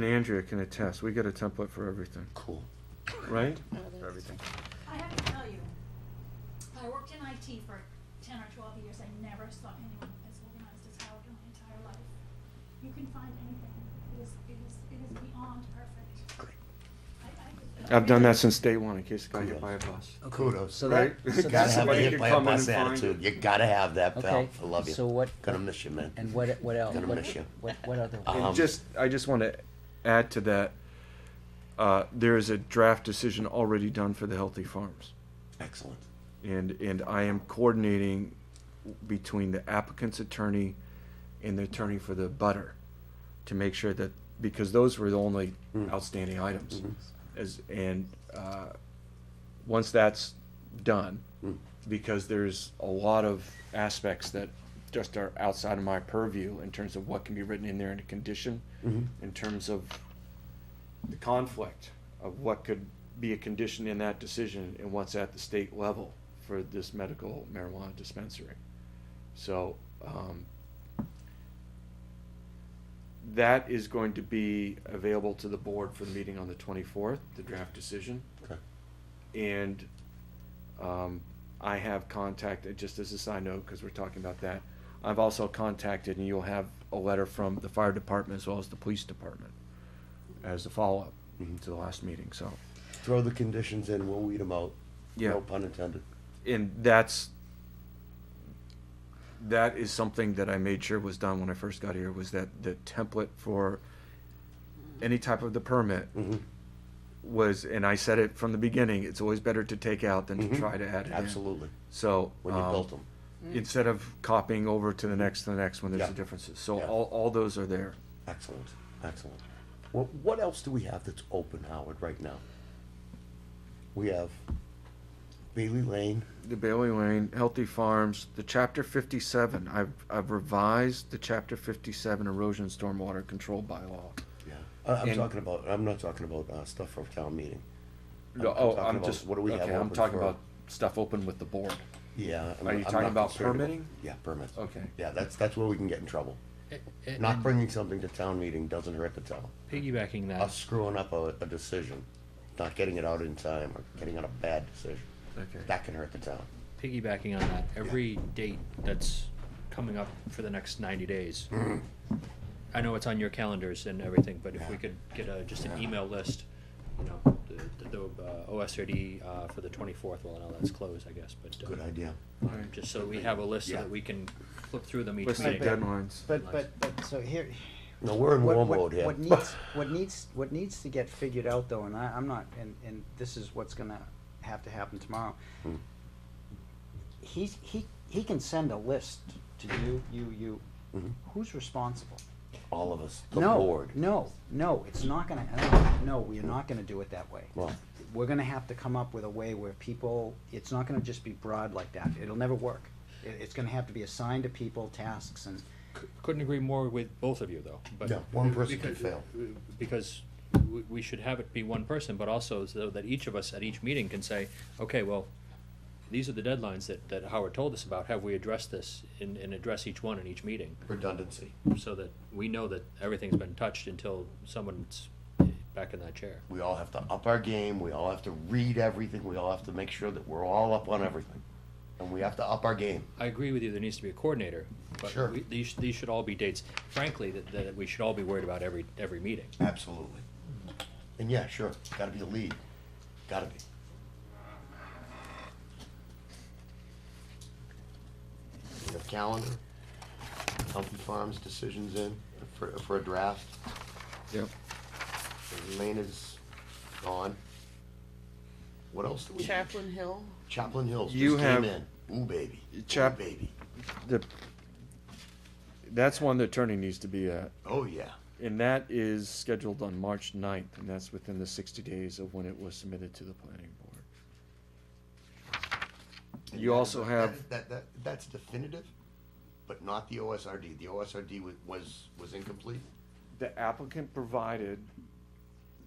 And Andrea can attest, we get a template for everything, Cool. right? For everything. I have to tell you, I worked in IT for ten or twelve years, I never saw anyone as organized as Howard in my entire life. You can find anything, it is, it is, it is beyond perfect. Great. I, I. I've done that since day one, in case I got hit by a bus. Okay, Kudos. So that, Right? Gotta so Gotta that's have a Somebody okay. could hit by a come in bus and find attitude. You gotta have that, pal. Okay, I love you. so what- Gonna miss you, man. And what, what else? Gonna What- miss you. What, what other? Uh, Um, And just, I just want to add to that, uh, there is a draft decision already done for the Healthy Farms. Excellent. And, and I am coordinating between the applicant's attorney and the attorney for the butter to make sure that, because those were the only outstanding items. As, and, uh, once that's done, because there's a lot of aspects that just are outside of my purview in terms of what can be written in there in a condition, in terms of the conflict of what could be a condition in that decision and what's at the state level for this medical marijuana dispensary. So, um, that is going to be available to the board for the meeting on the twenty-fourth, the draft decision. Okay. And um, I have contacted, just as a side note, because we're talking about that, I've also contacted, and you'll have a letter from the fire department as well as the police department as a follow-up Mm-hmm. to the last meeting, so. Throw the conditions in, we'll weed them out. Yeah. No pun intended. And that's, that is something that I made sure was done when I first got here, was that the template for any type of the permit Mm-hmm. was, and I said it from the beginning, it's always better to take out than to try to add it in. Absolutely. So. Mm-hmm. When you um, built them. instead of copying over to the next, to the next one, there's Mm. Yeah. the differences. So Yeah. all, all those are there. Excellent. Excellent. What, what else do we have that's open, Howard, right now? We have Bailey Lane. The Bailey Lane, Healthy Farms, the chapter fifty-seven, I've, I've revised the chapter fifty-seven erosion stormwater control bylaw. Yeah. I, Uh, I'm And- talking about, I'm not talking about, uh, stuff from town meeting. I'm- I'm Oh, talking I'm about just, What do we have okay, I'm open talking for- about stuff open with the board. Yeah. I'm- Are you I'm talking not about concerned permitting? Yeah, permits. Okay. Yeah, that's, that's where we can get in trouble. A- Not and bringing something to town meeting doesn't hurt the town. piggybacking Us that, screwing up a, a decision, not getting it out in time, or getting on a bad decision, Okay. that can hurt the town. piggybacking on that, every date that's coming up for the next ninety days. Mm-hmm. I know it's on your calendars and everything, but if we could get a, just an email list, you know, the, the, uh, OSRD, uh, for the twenty-fourth, well, now that's closed, I guess, but. uh, Good idea. Alright. Just so we have a list so Yeah. that we can flip through them each Let's take meeting. Listed dead- deadlines. But, but, but, so here. No, we're in what- war what- mode here. What needs, what needs, what needs to get figured out though, and I, I'm not, and, and this is what's gonna have to happen tomorrow. Hmm. He's, he, he can send a list to you, you, you. Who's responsible? All of us, Mm-hmm. the no, board. No, no, it's not gonna, no, no, we're not gonna do it that way. Well, We're gonna have to come up with a way where people, it's not gonna just be broad like that. It'll never work. It, it's gonna have to be assigned to people, tasks and, Couldn't agree more with both of you, though, but. yeah, one person could because- fail. because we, we should have it be one person, but also so that each of us at each meeting can say, okay, well, these are the deadlines that, that Howard told us about, have we addressed this and, and address each one in each meeting? Redundancy. So that we know that everything's been touched until someone's back in that chair. We all have to up our game, we all have to read everything, we all have to make sure that we're all up on everything. And we have to up our game. I agree with you, there needs to be a coordinator, Sure. but we, these, these should all be dates, frankly, that, that we should all be worried about every, every meeting. Absolutely. And yeah, sure, gotta be a lead, gotta be. We have calendar, Humphrey Farms decisions in for, for a draft, Yep. Lane is gone. What else do we have? Chaplain Hill. Chaplain Hills You just have- came in, ooh baby, ooh Chap- baby, The, that's one the attorney needs to be at. oh yeah. And that is scheduled on March 9th, and that's within the sixty days of when it was submitted to the planning board. And You that is- also that have- is- That, that, that's definitive, but not the OSRD, the OSRD wa- was, was incomplete. The applicant provided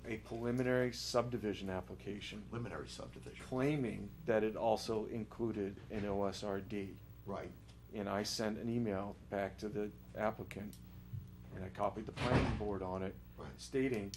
a preliminary subdivision application preliminary subdivision. claiming that it also included an OSRD. Right. And I sent an email back to the applicant and I copied the planning board on it, Right. stating